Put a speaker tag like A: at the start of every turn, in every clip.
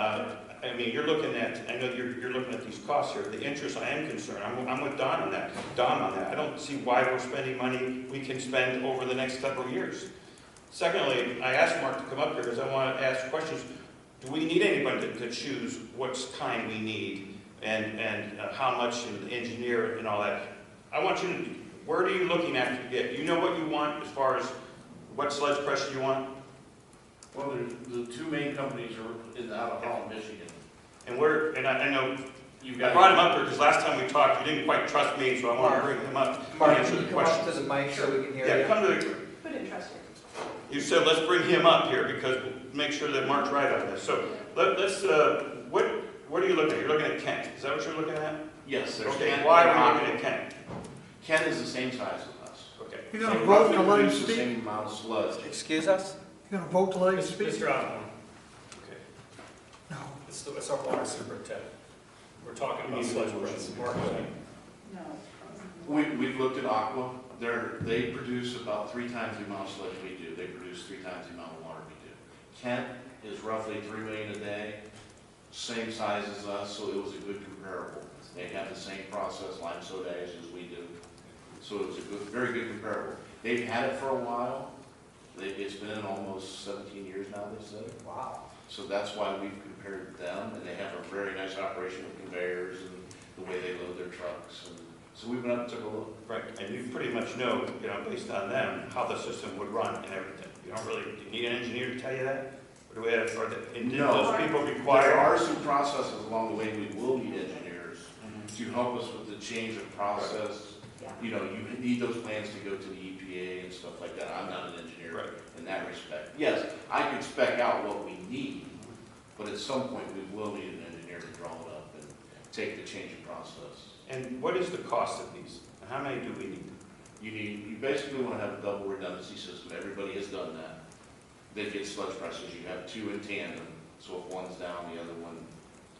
A: uh, I mean, you're looking at, I know you're, you're looking at these costs here, the interest, I am concerned, I'm, I'm with Don on that, Don on that, I don't see why we're spending money we can spend over the next couple of years. Secondly, I asked Mark to come up here because I want to ask questions, do we need anybody to, to choose what's kind we need and, and uh, how much and engineer and all that? I want you to, where are you looking at to get, you know what you want as far as what sledge pressure you want?
B: Well, the- the two main companies are in, out of Holland, Michigan.
A: And where, and I, I know
B: You've
A: I
B: got.
A: brought him up here because last time we talked, you didn't quite trust me, so I want to bring him up and
C: Mark,
A: answer
C: can
A: the
C: you come up
A: question.
C: to the mic so we can hear
A: Yeah,
C: you?
A: come to the,
D: Put in trust
A: you said, let's bring him up here because we'll make sure that Mark's right on this. So let, let's, uh, what, what are you looking at? You're looking at Kent. Is that what you're looking at?
B: Yes, there's.
A: Okay,
B: Ken-
A: why are we looking at Kent?
B: Ken is the same size as us.
A: Okay.
E: You're gonna
B: They
E: vote
B: roughly
E: to let him
B: produce the
E: speak?
B: Same amount of sludge.
C: Excuse us?
E: You're gonna vote to let him speak?
F: Mr. Osborne,
A: Okay.
E: No.
F: it's, the- it's our water superintendent. We're talking
B: You
F: about
B: need a
F: sludge
B: motion.
F: press. Mark, uh,
D: No.
B: We, we've looked at Aqua, they're, they produce about three times the amount of sludge we do, they produce three times the amount of water we do. Kent is roughly three million a day, same size as us, so it was a good comparable. They have the same process, lime soda ash as we do, so it was a good, very good comparable. They've had it for a while, they, it's been almost seventeen years now, they said.
C: Wow.
B: So that's why we've compared them, and they have a very nice operation with conveyors and the way they load their trucks. and So we went up and took a look.
A: Right, and you pretty much know, you know, based on them, how the system would run and everything. You don't really, do you need an engineer to tell you that? Or do we have, or the- and did
B: No.
A: those people
B: There
A: require?
B: are some processes along the way, we will need engineers
A: Mm-hmm.
B: to help us with the change of process.
D: Yeah.
B: You know, you need those plans to go to the EPA and stuff like that. I'm not an
A: Right.
B: engineer in that respect. Yes, I could spec out what we need, but at some point, we will need an engineer to draw it up and take the change of process.
A: And what is the cost of these? And How many do we need?
B: You need, you basically want to have a double redundancy system, everybody has done that. They get sludge presses, you have two in tandem, so if one's down, the other one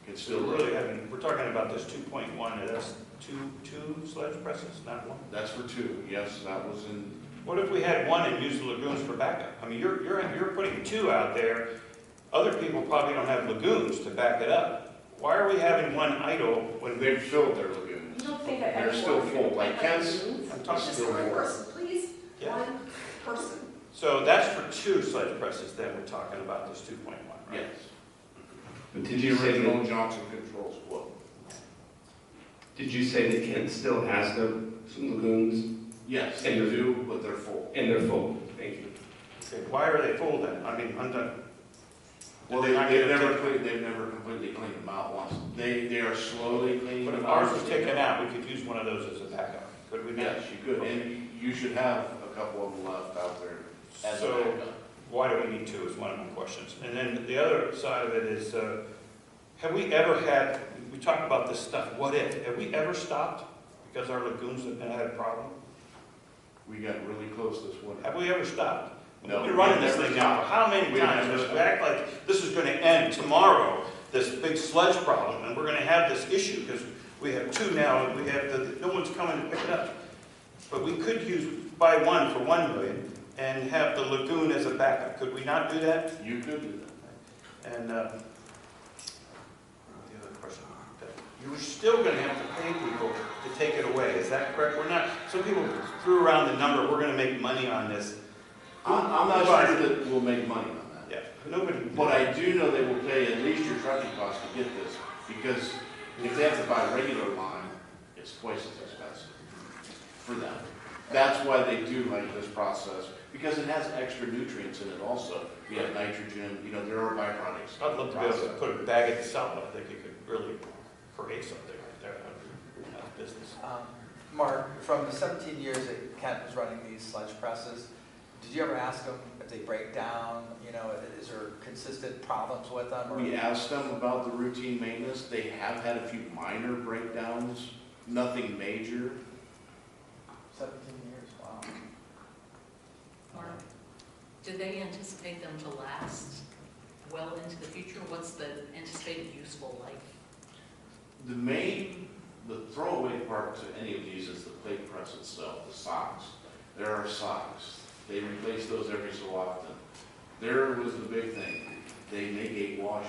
B: can
A: So
B: still
A: we're really
B: load.
A: having, we're talking about this two point one, and that's two, two sledge presses, not one?
B: That's for two, yes, that was in,
A: What if we had one and used the lagoons for backup? I mean, you're, you're, you're putting two out there. Other people probably don't have lagoons to back it up. Why are we having one idle when we,
B: they've filled their
D: You
B: lagoons.
D: don't think that
B: They're
D: everyone.
B: still full, like Ken's,
A: I'm
B: are
A: talking,
D: Just
B: still
D: one
B: full.
D: person, please,
A: yeah.
D: one person.
A: So that's for two sledge presses that we're talking about, this two point one, right?
B: Yes. The original Johnson Controls quote.
G: Did you say that Kent still has the, some lagoons
B: Yes, they do, but they're full.
G: and they're full? Thank you.
A: Okay, why are they full then? I mean, I'm done.
B: Well, they,
A: They're not
B: they've
A: gonna
B: never,
A: take-
B: cleaned- they've never completely cleaned them out once. They, they are slowly cleaning
A: But
B: them
A: if
B: out.
A: ours was taken out, we could use one of those as a backup, could we not?
B: Yes, you could, and you should have a couple of them left out there as a
A: So-
B: backup.
A: Why do we need two is one of my questions. And then the other side of it is, uh, have we ever had, we talked about this stuff, what if? Have we ever stopped because our lagoons have been, had a problem?
B: We got really close this winter.
A: Have we ever stopped? We've
B: No,
A: been running
B: we've
A: this
B: never
A: thing now for how many
B: We've
A: times?
B: never
A: It's
B: stopped.
A: act like this is gonna end tomorrow, this big sludge problem, and we're gonna have this issue because we have two now, and we have the, no one's coming to pick it up. But we could use, buy one for one million and have the lagoon as a backup. Could we not do that?
B: You could do that.
A: And, uh, the other question, you're still gonna have to pay people to take it away, is that correct? We're not, some people threw around the number, we're gonna make money on this.
B: I'm, I'm not
A: But-
B: sure that we'll make money on that.
A: Yeah, nobody.
B: But I do know they will pay at least your trucking cost to get this, because if they have to buy regular line, it's twice as expensive for them. That's why they do like this process, because it has extra nutrients in it also. You have nitrogen, you know, there are byproducts.
A: I'd love to be able to
B: Process.
A: put a bag at the south, I think it could really create something right there, out of business.
C: Um, Mark, from the 17 years that Kent was running these sledge presses, did you ever ask them if they break down, you know, is there consistent problems with them? or-
B: We asked them about the routine maintenance. They have had a few minor breakdowns, nothing major.
C: 17 years, wow.
H: Mark, do they anticipate them to last well into the future? What's the anticipated useful life?
B: The main, the throwaway part to any of these is the plate press itself, the socks. There are socks. They replace those every so often. There was the big thing. They make a wash